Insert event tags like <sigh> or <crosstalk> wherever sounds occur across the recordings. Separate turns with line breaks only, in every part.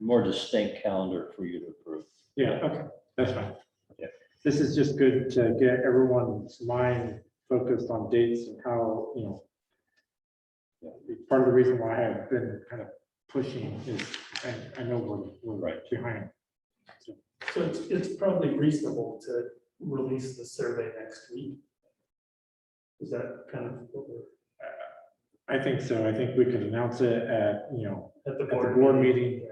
more distinct calendar for you to approve.
Yeah, okay, that's fine.
Yeah.
This is just good to get everyone's mind focused on dates and how, you know. yeah, it's Part of the reason why I've been kind of pushing is, I, I know we're, we're
Right.
behind.
So it's, it's probably reasonable to release the survey next week. Is that kind of what we're,
I think so. I think we can announce it at, you know,
at the
At the
board?
board meeting.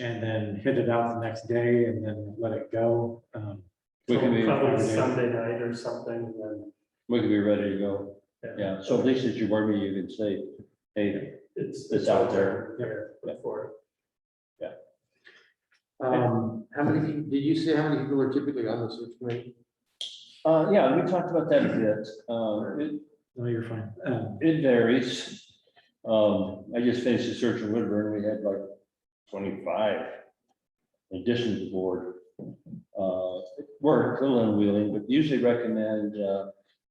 and then hit it out the next day and then let it go. Um,
We can be,
Probably
Yeah.
Sunday night or something, then
we can be ready to go. Yeah, so at least at your board meeting, you can say, hey,
it's.
It's out there.
Yeah, before.
Um, how many, peo- did you say how many people are typically on the search committee?
uh, yeah, we talked about that a bit. Uh, it,
No, you're fine. Um,
It varies. Um, I just finished a search in Woodburn. We had like twenty-five in addition to the board. Uh, it worked a little unwieldy, but usually recommend, uh,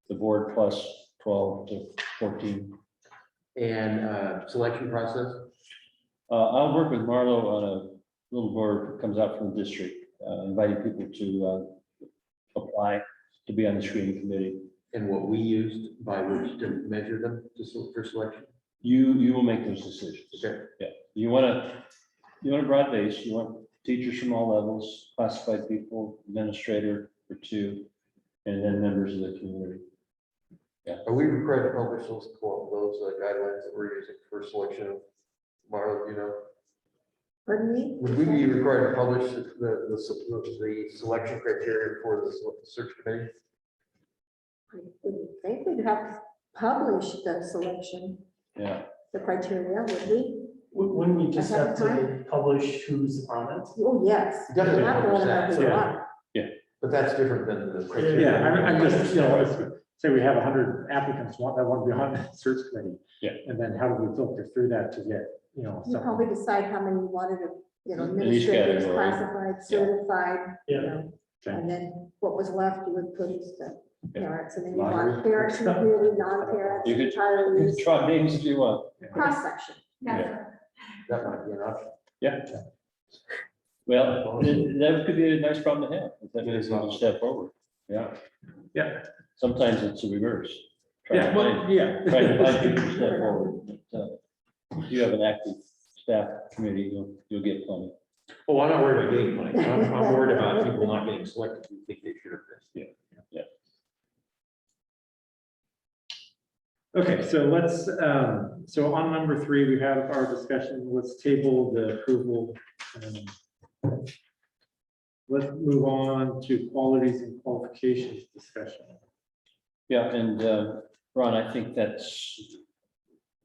the board plus twelve to fourteen.
And, uh, selection process?
Uh, I'll work with Marlo on a little board that comes out from the district, uh, inviting people to, uh, apply to be on the screening committee.
And what we used by which to measure them to, se- for selection?
You, you will make those decisions.
Okay.
You want to, you want a broad base, you want teachers from all levels, classified people, administrator or two, and then members of the community.
Are we required to publish those, co- those uh, guidelines that we're using for selection of Marla, you know?
Pardon me?
Would we be required to publish the, the, the se- the selection criteria for the se- search committee?
I would think we'd have to publish the selection,
Yeah,
the criteria, would we?
Wou- Wouldn't we just
Ahead
have
of
to publish who's on it?
Oh, yes. We
Definitely
have to
publish
let
that,
them
yeah.
know.
But that's different than the criteria.
Yeah, I'm, I'm just, you know, if- say we have hundred applicants want, that want to be on the search committee.
Yeah.
And then how do we filter through that to get, you know,
You
something?
probably decide how many you wanted to, you know,
In each
administrators,
category.
classified, certified, you
Yeah,
know.
Okay.
And then what was left, you would put as the
Yeah.
parents, and then you
Lottery.
want parents, community, non-parents,
You could- you can
retirees,
try names if you want.
cross-section.
Yeah.
That might be an option.
Well, it- that could be a nice problem to have, if that
It
is
is
a step forward. Yeah.
Yeah.
Sometimes it's a reverse. Try to
Yeah,
find-
well, yeah.
try
<laughs>
to find people to step forward. But, uh, If you have an active staff committee, you'll, you'll get plenty.
Oh, I'm not worried about getting money. I'm, I'm worried about people not getting selected. who think they should have been.
Okay, so let's, um, so on number three, we have our discussion, let's table the approval. um, Let's move on to qualities and qualifications discussion.
Yeah, and uh, Ron, I think that's,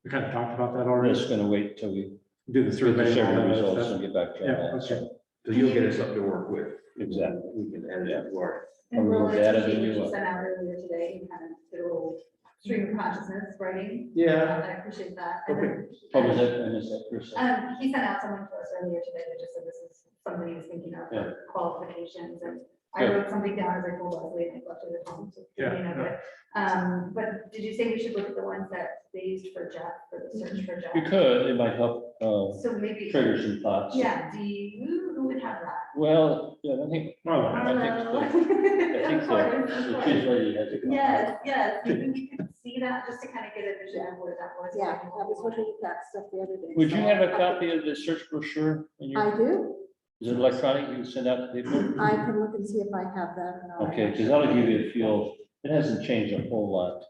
We kind of talked about that
we're
already,
just gonna wait till we
do
get
the
the
survey. and all
survey
that other
results and
stuff.
get back to
Yeah,
that.
okay.
So,
So you'll get us something to work with.
Exactly.
We can add it to our.
And
Or
we'll
we'll add it
teaching,
to
which
what?
you sent out earlier today, you had a little stream of consciousness writing.
Yeah.
I appreciate that. And then-
What Oh, was that? I missed that first sentence.
Um, he sent out someone to us earlier today that just said this is something he was thinking of
Yeah.
for qualifications and I
Good.
wrote something down as I told Leslie and I left it at home. so you
Yeah,
know,
yeah.
but, Um, but did you say we should look at the ones that they used for job, for the search for
You
job?
could, it might help uh,
So maybe,
trigger some thoughts.
yeah, do you, who would have that?
Well, yeah, I think,
Marla,
I think
<laughs>
so. I think so.
Of course, of
The
course.
chief lady has a comment.
Yes,
<laughs>
yes, maybe we could see that, just to kind of get a vision of where that was.
Yeah, I was looking at that stuff the other day.
Would you
so-
have a copy of the search brochure? in your-
I do.
Is it electronic? You can send out to people?
I can look and see if I have that. and I'll-
Okay, because that'll give you a feel. It hasn't changed a whole lot.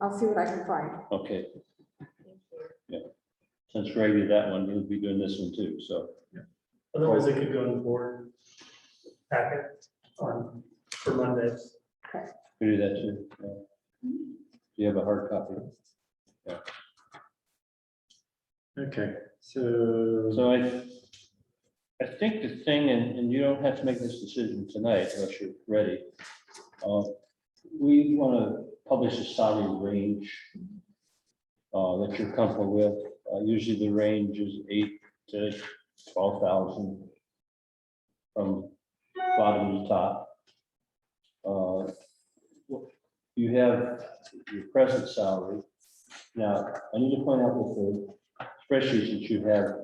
I'll see what I can find.
Okay, since Ray did that one, he'll be doing this one too, so.
otherwise it could go in the board packet on, for Mondays.
We do that too. yeah. Do you have a hard copy?
okay, so,
So I, I think the thing, and, and you don't have to make this decision tonight unless you're ready. uh, We want to publish a salary range uh, that you're comfortable with. Uh, Usually the range is eight to twelve thousand from bottom to top. Uh, You have your present salary. Now, I need to point out with the spreadsheets that you have